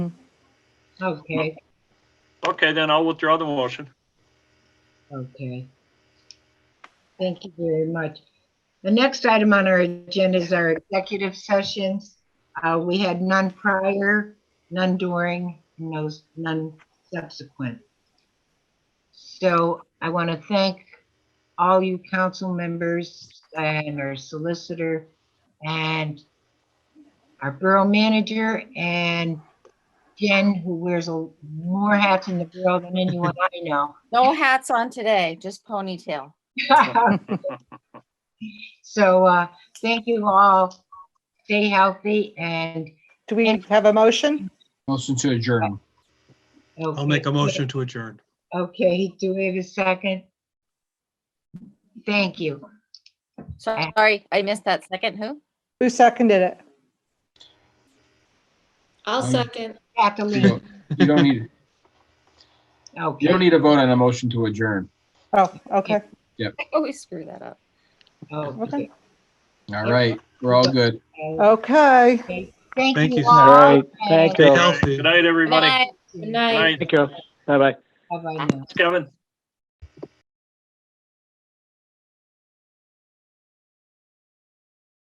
Okay, Okay, then I'll withdraw the motion. okay. Thank you very much. The next item on our agenda is our executive sessions. Uh, we had none prior, none during, no, none subsequent. So I want to thank all you council members and our solicitor and our borough manager and Jen, who wears a- more hats in the borough than anyone I know. No hats on today, just ponytail. So, uh, thank you all. Stay healthy and. Do we have a motion? Motion to adjourn. I'll make a motion to adjourn. Okay, do we have a second? Thank you. So- Sorry, I missed that second. Who? Who seconded it? I'll Um, second. You Kathleen, don't- you don't need, you don't okay, need a vote on a motion to adjourn. Oh, okay. I always screw that up. okay. All right, we're all good. Okay. Thank Thank you you. All all. right, thank Stay you. healthy. Good night, Good everybody. night. Good Good night. night, Thank you. Bye-bye. Bye-bye now. Kevin.